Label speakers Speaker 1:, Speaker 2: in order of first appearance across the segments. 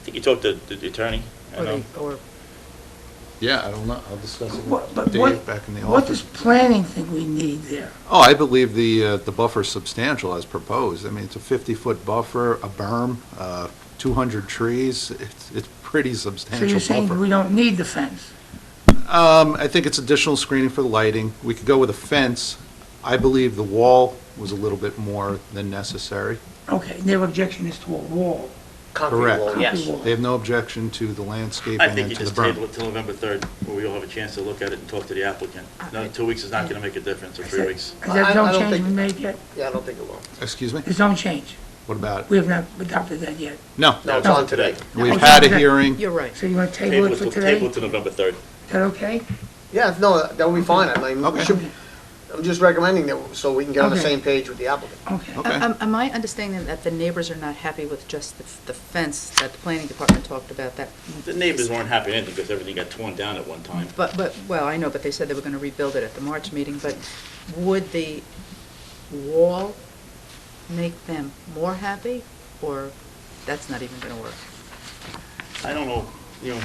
Speaker 1: I think you talked to the attorney. I
Speaker 2: Or
Speaker 1: know.
Speaker 2: they, or,
Speaker 3: Yeah, I don't know, I'll discuss it
Speaker 4: What-
Speaker 3: with
Speaker 4: But what,
Speaker 3: Dave back in the
Speaker 4: what does
Speaker 3: office.
Speaker 4: planning think we need there?
Speaker 3: Oh, I believe the, uh, the buffer's substantial as proposed. I mean, it's a 50-foot buffer, a berm, uh, 200 trees, it's, it's pretty
Speaker 4: So
Speaker 3: substantial
Speaker 4: you're
Speaker 3: buffer.
Speaker 4: saying we don't need the fence?
Speaker 3: Um, I think it's additional screening for the lighting. We could go with a fence. I believe the wall was a little bit more than necessary.
Speaker 4: Okay, their objection is to a wall.
Speaker 2: concrete
Speaker 3: Correct.
Speaker 2: wall, yes.
Speaker 4: Concrete wall.
Speaker 3: They have no objection to the landscaping
Speaker 1: I think
Speaker 3: and
Speaker 1: you
Speaker 3: to the
Speaker 1: just table
Speaker 3: berm.
Speaker 1: it till November 3rd, where we all have a chance to look at it and talk to the applicant. No, two weeks is not going to make a difference, or three weeks.
Speaker 4: Has
Speaker 2: I- I
Speaker 4: that
Speaker 2: don't
Speaker 4: zone change
Speaker 2: think-
Speaker 4: been made yet?
Speaker 2: Yeah, I don't think it will.
Speaker 3: Excuse me?
Speaker 4: The zone change,
Speaker 3: What about
Speaker 4: we
Speaker 3: it?
Speaker 4: have not adopted that yet.
Speaker 3: No.
Speaker 2: No, it's
Speaker 1: No.
Speaker 2: on today.
Speaker 3: We've
Speaker 4: Okay.
Speaker 3: had a hearing.
Speaker 5: You're right.
Speaker 4: So you want to table
Speaker 1: Table
Speaker 4: it
Speaker 1: it
Speaker 4: for
Speaker 1: till,
Speaker 4: today?
Speaker 1: table it
Speaker 4: Is
Speaker 1: to November 3rd.
Speaker 4: that okay?
Speaker 2: Yeah, no, that'll be fine. I mean, we
Speaker 3: Okay.
Speaker 2: should, I'm just recommending that, so we can get on the
Speaker 4: Okay.
Speaker 2: same page with the applicant.
Speaker 4: Okay.
Speaker 3: Okay.
Speaker 5: Am um, am I understanding that the neighbors are not happy with just the the fence that the planning department talked about that?
Speaker 1: The neighbors weren't happy with anything because everything got torn down at one time.
Speaker 5: But, but, well, I know, but they said they were going to rebuild it at the March meeting, but would the wall make them more happy? Or that's not even going to work?
Speaker 1: I don't know, you know,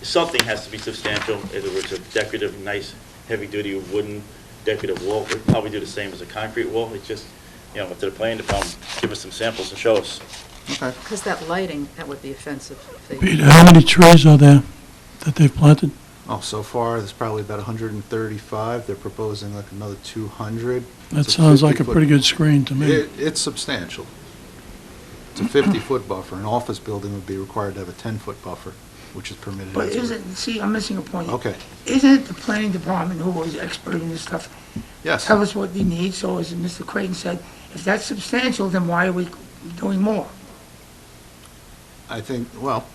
Speaker 1: something has to be substantial, either it's a decorative, nice, heavy-duty wooden decorative wall, we'd probably do the same as a concrete wall, it's just, you know, up to the planning department, give us some samples and show us.
Speaker 3: Okay.
Speaker 5: Because that lighting, that would be offensive. if they-
Speaker 6: Peter, how many trees are there that they've planted?
Speaker 3: Oh, so far, there's probably about 135. They're proposing like another 200.
Speaker 6: That
Speaker 3: It's a
Speaker 6: sounds like a
Speaker 3: 50-foot
Speaker 6: pretty good screen to me.
Speaker 3: It, it's substantial. It's a 50-foot buffer. An office building would be required to have a 10-foot buffer, which is permitted.
Speaker 4: But
Speaker 3: as a-
Speaker 4: isn't, see, I'm missing a point. here.
Speaker 3: Okay,
Speaker 4: Isn't it the planning department who was expert in this stuff?
Speaker 3: yes.
Speaker 4: Tell us what they need, so as Mr. Creighton said, if that's substantial, then why are we doing more?
Speaker 3: I think, well,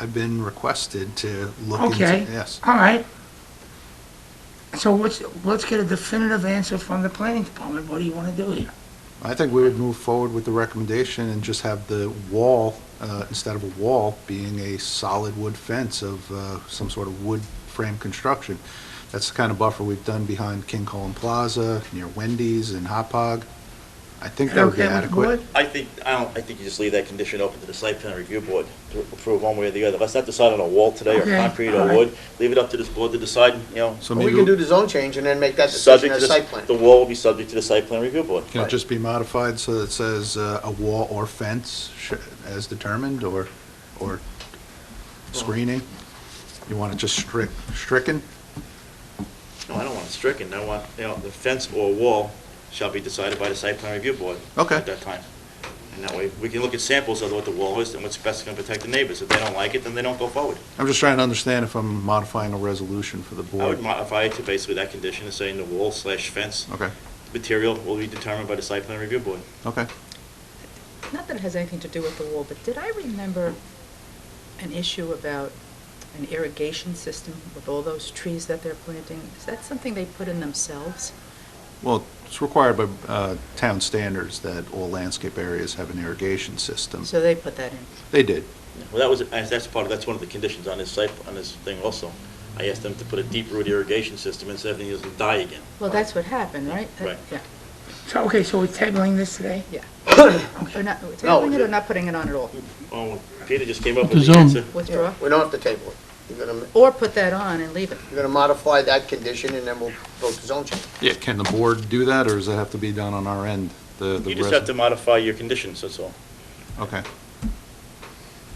Speaker 3: I've been requested to look into,
Speaker 4: Okay.
Speaker 3: yes.
Speaker 4: All right. So let's, let's get a definitive answer from the planning department, what do you want to do here?
Speaker 3: I think we would move forward with the recommendation and just have the wall, uh, instead of a wall, being a solid wood fence of uh, some sort of wood frame construction. That's the kind of buffer we've done behind King Cullen Plaza, near Wendy's and Hot Pog. I think that would be
Speaker 4: Okay with the
Speaker 3: adequate.
Speaker 4: board?
Speaker 1: I think, I don't, I think you just leave that condition open to the site plan review board to approve one way or the other. Let's not decide on a wall today, or
Speaker 4: Okay,
Speaker 1: concrete,
Speaker 4: all
Speaker 1: or
Speaker 4: right.
Speaker 1: wood, leave it up to this board to decide, you know,
Speaker 3: So
Speaker 2: But we
Speaker 3: maybe,
Speaker 2: can do
Speaker 3: can
Speaker 2: the zone change and then make that decision
Speaker 1: subject
Speaker 2: as
Speaker 1: to
Speaker 2: site
Speaker 1: the,
Speaker 2: plan.
Speaker 1: the wall will be subject to the site plan review board.
Speaker 3: it just be modified so that it says uh, a wall or fence sh- as determined, or, or screening? You want it just strict, stricken?
Speaker 1: No, I don't want it stricken, I want, you know, the fence or wall shall be decided by the site plan review board.
Speaker 3: Okay.
Speaker 1: At that time. And that way, we can look at samples of what the wall is and what's best gonna protect the neighbors. If they don't like it, then they don't go forward.
Speaker 3: I'm just trying to understand if I'm modifying a resolution for the
Speaker 1: I would
Speaker 3: board.
Speaker 1: modify it to basically that condition and saying the wall slash fence
Speaker 3: Okay,
Speaker 1: material will be determined by the site plan review board.
Speaker 3: okay.
Speaker 5: Not that it has anything to do with the wall, but did I remember an issue about an irrigation system with all those trees that they're planting? Is that something they put in themselves?
Speaker 3: Well, it's required by uh, town standards that all landscape areas have an irrigation system.
Speaker 5: So they put that in.
Speaker 3: They did.
Speaker 1: Well, that was, and that's part of, that's one of the conditions on this site, on this thing also. I asked them to put a deep root irrigation system and so everything doesn't die again.
Speaker 5: Well, that's what happened, right? Uh,
Speaker 1: Right.
Speaker 5: Yeah.
Speaker 4: So, okay, so we're tabling this today?
Speaker 5: Or not, we're
Speaker 2: No,
Speaker 5: tabling it
Speaker 2: the-
Speaker 5: or not putting it on at all?
Speaker 1: Oh, Peter just came up
Speaker 6: The
Speaker 1: with the
Speaker 6: zone.
Speaker 1: answer.
Speaker 5: Withdraw?
Speaker 2: We don't have to table it. You're gonna,
Speaker 5: Or put that on and leave it?
Speaker 2: you're gonna modify that condition and then we'll vote the zone change.
Speaker 3: Yeah, can the board do that, or does it have to be done on our end? The the
Speaker 1: You just
Speaker 3: res-
Speaker 1: have to modify your conditions, that's all.
Speaker 3: Okay.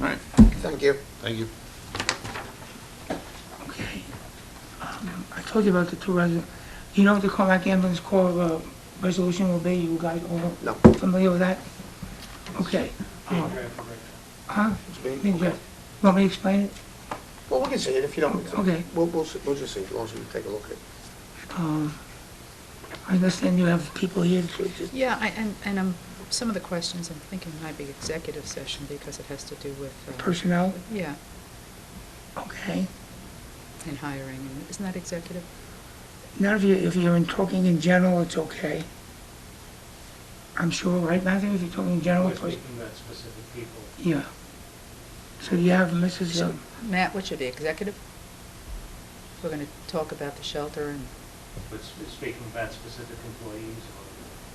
Speaker 3: All right,
Speaker 2: Thank you.
Speaker 3: thank you.
Speaker 4: Okay. Um, I told you about the two residents. You know what the Carmack ambulance call uh, resolution will be? You guys all
Speaker 2: No.
Speaker 4: familiar with that? Okay. Um, Huh?
Speaker 2: Speak.
Speaker 4: Big draft. You Want me to explain it?
Speaker 2: Well, we can see it if you don't. we can-
Speaker 4: Okay.
Speaker 2: We'll, we'll, see- we'll just see, as long as we take a look at it.
Speaker 4: Um, I understand you have people here. to-
Speaker 5: Yeah, I- and, and um, some of the questions I'm thinking might be executive session because it has to do with, uh,
Speaker 4: Personnel?
Speaker 5: yeah,
Speaker 4: Okay.
Speaker 5: and hiring. and Isn't that executive?
Speaker 4: Now, if you, if you're in talking in general, it's okay. I'm sure, right, Matthew, if you're talking in general,
Speaker 7: We're
Speaker 4: it's-
Speaker 7: speaking about specific people.
Speaker 4: yeah. So you have Mrs. uh,
Speaker 5: Matt, what should be executive? We're going to talk about the shelter and
Speaker 7: But sp- speaking about specific employees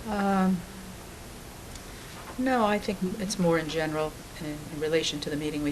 Speaker 7: or...
Speaker 5: Um, No, I think it's more in general, in in relation to the meeting we